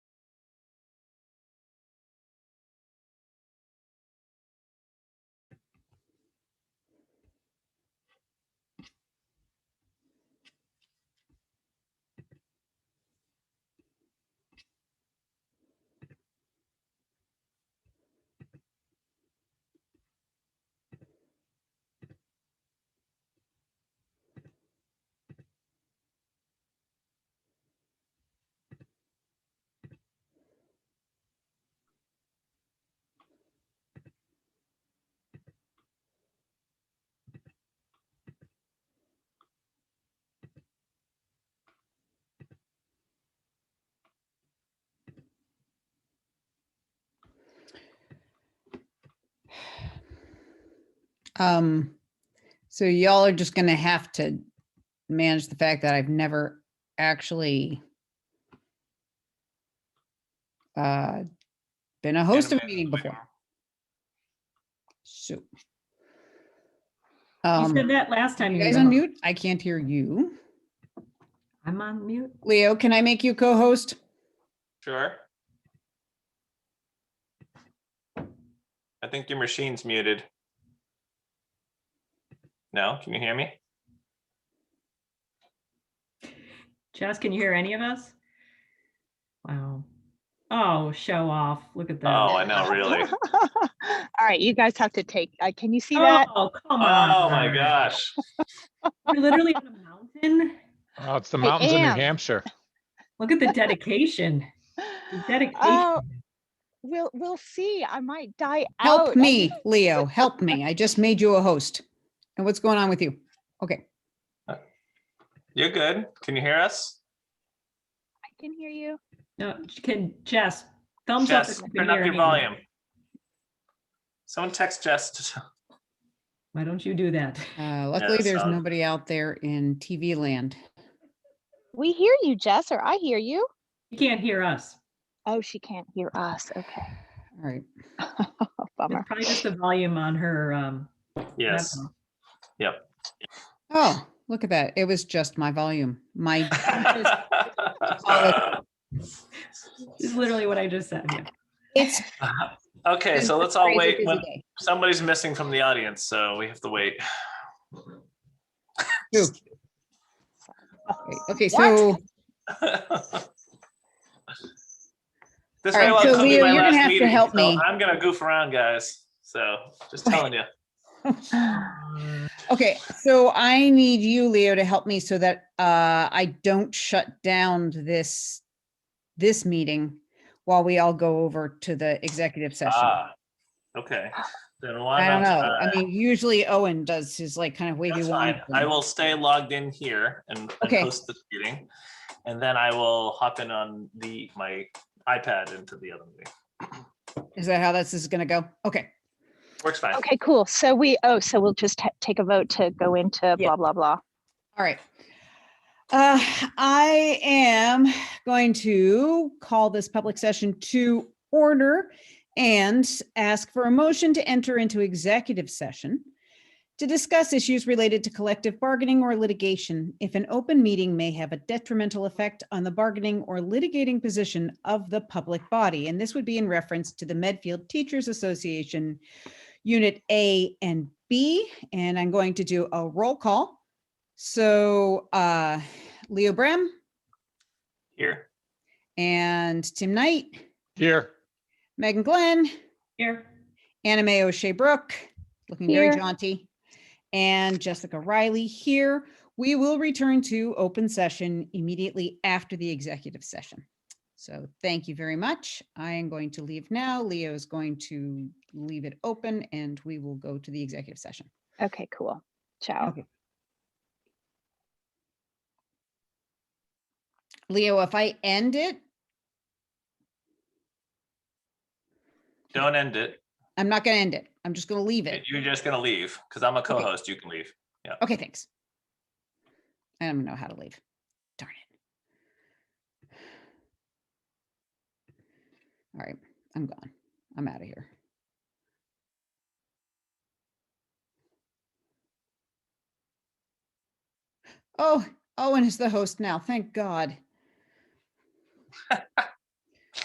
Um, so y'all are just gonna have to manage the fact that I've never actually uh, been a host of a Animated meeting Living before. So. You Um, said that last time. you you guys were on on. mute? I can't hear you. I'm on mute. Leo, can I make you co-host? Sure. I think your machine's muted. No, can you hear me? Jess, can you hear any of us? Wow. Oh, show off. Look at Oh, that. I know, really. All right, you guys have to take, uh, can you see that? Oh, come on. Oh, my gosh. You're literally on a mountain. Oh, it's the I mountains in New am. Hampshire. Look at the dedication. The dedication. Oh, we'll, we'll see. I might die Oh, out. Help I- me, Leo, help me. I just made you a host. And what's going on with you? Okay, You're good. Can you hear us? I can hear you. No, Can Jess, thumbs up. Jess, if you can turn up hear your anything. volume. Someone text Jess. to- Why don't you do that? uh, luckily that there's sounds- nobody out there in TV land. We hear you, Jess, or I hear you. You can't hear us. Oh, she can't hear us. Okay. Oh, All right, It's Bummer. probably just the volume on her. um, Yes. laptop. Oh, look at that. It was just my volume. My This is literally what I just said. yeah. it's Okay, been so let's a all crazy, Oh, wait. busy when- day. Somebody's missing from the audience, so we have to wait. True. Right, Okay, so, This All may right, well so come be Leo, you're my gonna last have to meeting, help so me. I'm gonna goof around, guys, so just telling you. okay, so I need you, Leo, to help me so that uh I don't shut down this this meeting while we all go over to the executive session. Ah, Okay, then why I don't not? know. uh, I mean, usually Owen does his like kind of wavy That's wand. fine. I thing. will stay logged in here and and Okay. host this meeting. And then I will hop in on the, my iPad into the other meeting. Is that how this is gonna go? Okay, Works fine. Okay, cool. So we, oh, so we'll just ta- take a vote to go into Yeah. blah, blah, blah. all right. Uh, I am going to call this public session to order and ask for a motion to enter into executive session to discuss issues related to collective bargaining or litigation if an open meeting may have a detrimental effect on the bargaining or litigating position of the public body. And this would be in reference to the Medfield Teachers Association, Unit A and B. And I'm going to do a roll call. So uh Leo Brem Here. and Tim Knight, Here, Megan Glenn, Here. Anna Mae O'Shea Brooke, looking very Here. jaunty, and Jessica Riley here. We will return to open session immediately after the executive session. So thank you very much. I am going to leave now. Leo is going to leave it open and we will go to the executive session. Okay, cool. Ciao. Leo, if I end it, Don't end it. I'm not going to end it. I'm just going to leave it. You're just gonna leave, because I'm a co-host. You can leave. Okay, thanks. I don't know how to leave. Darn it. All right, I'm gone. I'm out of here. Oh, Owen is the host now. Thank God.